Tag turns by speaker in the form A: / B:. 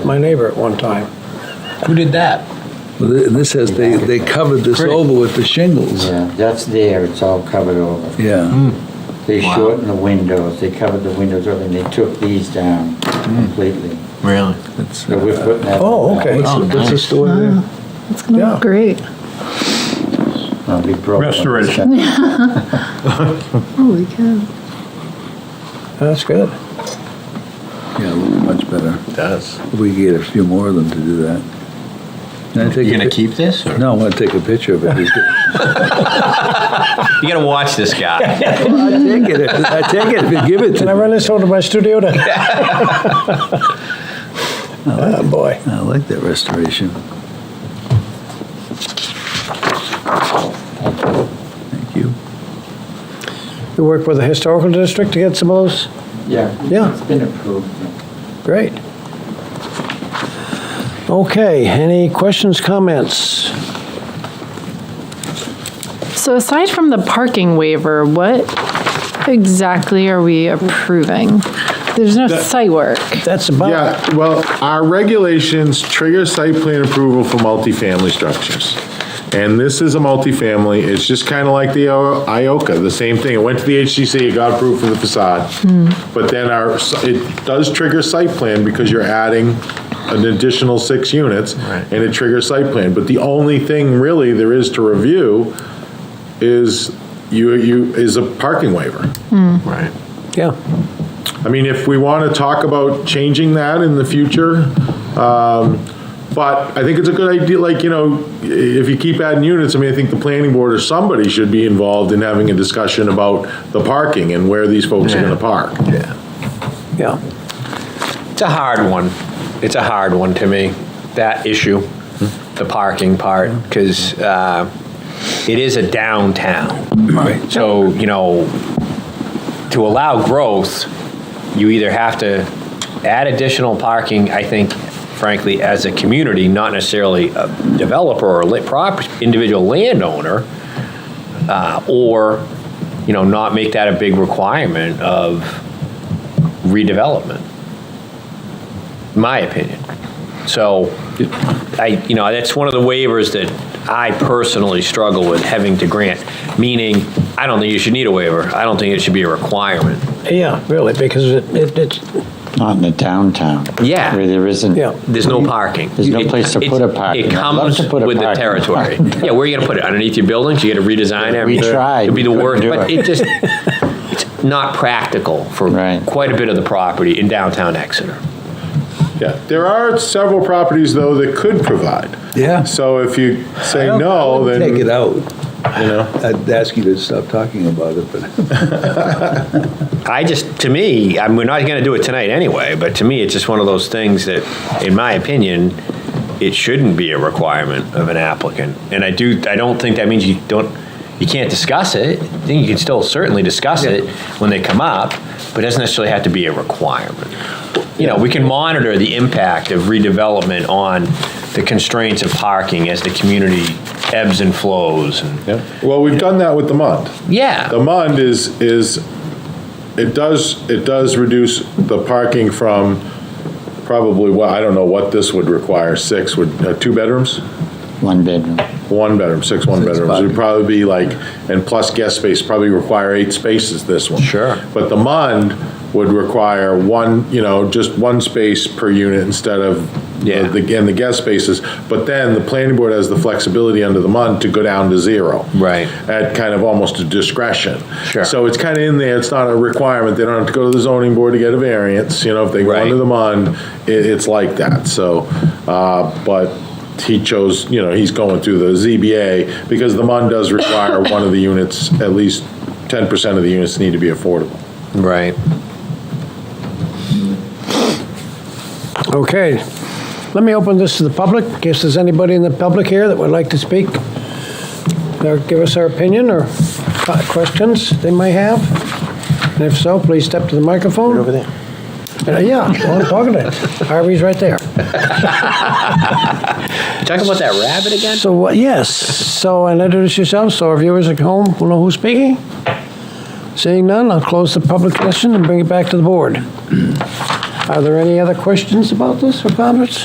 A: my neighbor at one time.
B: Who did that?
C: Well, th- This has, they, they covered this
B: Great.
C: over with the shingles.
D: Yeah, that's there, it's all covered over.
C: Yeah,
D: They
E: Wow.
D: shortened the windows, they covered the windows over, and they took these down completely.
E: Really?
C: it's,
D: So we're
C: uh,
D: putting that.
A: Oh, okay.
C: what's,
E: Oh,
C: the- what's the
E: nice.
C: store there?
F: It's gonna
A: Yeah.
F: look great.
D: I'll be broke.
G: Restoration.
F: Holy cow.
A: That's good.
C: Yeah, it looks much better.
E: Does.
C: If We could get a few more of them to do that. Can I take
E: You
C: a
E: gonna
C: pic-
E: keep this or?
C: No, I want to take a picture of it. Just-
E: You gotta watch this guy.
C: I take it, if- I take it if you give it to
A: Can I
C: me.
A: run this over to my studio to? Oh, boy.
C: I like that restoration. Thank you.
A: You work with the historical district to get some of those?
D: Yeah.
A: Yeah.
D: It's been approved.
A: Great. Okay, any questions, comments?
F: So aside from the parking waiver, what exactly are we approving? There's no site work.
A: That's about,
G: Yeah, well, our regulations trigger site plan approval for multifamily structures. And this is a multifamily, it's just kind of like the I- Ioka, the same thing. It went to the HCC, it got approved for the facade. But then our, it does trigger site plan because you're adding an additional six units.
E: Right.
G: And it triggers site plan. But the only thing really there is to review is you, you, is a parking waiver.
E: Right.
A: yeah.
G: I mean, if we want to talk about changing that in the future, um, but I think it's a good idea, like, you know, if you keep adding units, I mean, I think the planning board or somebody should be involved in having a discussion about the parking and where these folks are
E: Yeah.
G: going to park.
E: Yeah.
A: Yeah.
B: It's a hard one. It's a hard one to me, that issue, the parking part, because it is a downtown.
C: Right.
B: So, you know, to allow growth, you either have to add additional parking, I think, frankly, as a community, not necessarily a developer or a lit prop, individual landowner, uh, or, you know, not make that a big requirement of redevelopment, my opinion. So, I, you know, that's one of the waivers that I personally struggle with having to grant, meaning, I don't think you should need a waiver. I don't think it should be a requirement.
A: Yeah, really, because it, it- it's,
D: Not in the downtown.
B: Yeah.
D: Where there isn't.
A: yeah,
B: There's no parking.
D: There's no place to
B: It-
D: put a parking.
B: It
D: I'd love
B: comes
D: to put a
B: with the
D: parking.
B: territory. Yeah, where are you gonna put it? Underneath your buildings? You gotta redesign
D: We
B: everything?
D: tried.
B: It'd be the
D: We couldn't
B: worst,
D: do
B: but
D: it.
B: it just, it's not practical for
D: Right.
B: quite a bit of the property in downtown Exeter.
G: Yeah, there are several properties, though, that could provide.
C: Yeah.
G: So if you say
C: I don't- I
G: no,
C: wouldn't
G: then,
C: Take
G: you
C: it out.
G: know.
C: I'd ask you to stop talking about it, but.
B: I just, to me, I mean, we're not going to do it tonight anyway, but to me, it's just one of those things that, in my opinion, it shouldn't be a requirement of an applicant. And I do, I don't think that means you don't, you can't discuss it. I think you can still certainly discuss it when they come up, but it doesn't necessarily have to be a requirement. You know, we can monitor the impact of redevelopment on the constraints of parking as the community ebbs and flows and,
G: Yeah. Well, we've done that with the MUND. The
B: yeah,
G: MUND is, is, it does, it does reduce the parking from probably, well, I don't know what this would require, six, would, uh, two bedrooms?
D: One bedroom.
G: One bedroom, six one
C: Six
G: bedrooms, would
C: parking.
G: probably be like, and plus guest space, probably require eight spaces, this one.
B: Sure.
G: But the MUND would require one, you know, just one space per unit instead of,
B: Yeah.
G: the and the guest spaces. But then the planning board has the flexibility under the MUND to go down to zero.
B: Right.
G: At kind of almost a discretion.
B: Sure.
G: So it's kind of in there, it's not a requirement, they don't have to go to the zoning board to get a variance, you know, if they go
B: Right.
G: under the MUND, it, it's like that, so, uh, but he chose, you know, he's going through the ZBA, because the MUND does require one of the units, at least ten percent of the units need to be affordable.
B: right.
A: okay. Let me open this to the public, in case there's anybody in the public here that would like to speak. Or give us their opinion or co- questions they may have. And if so, please step to the microphone. Over there. Yeah, well, I'm talking to him. Harvey's right there.
B: Talking about that rabbit again?
A: So, what- yes, so and introduce yourself, so our viewers at home will know who's speaking. Seeing none, I'll close the public session and bring it back to the board. Are there any other questions about this or comments?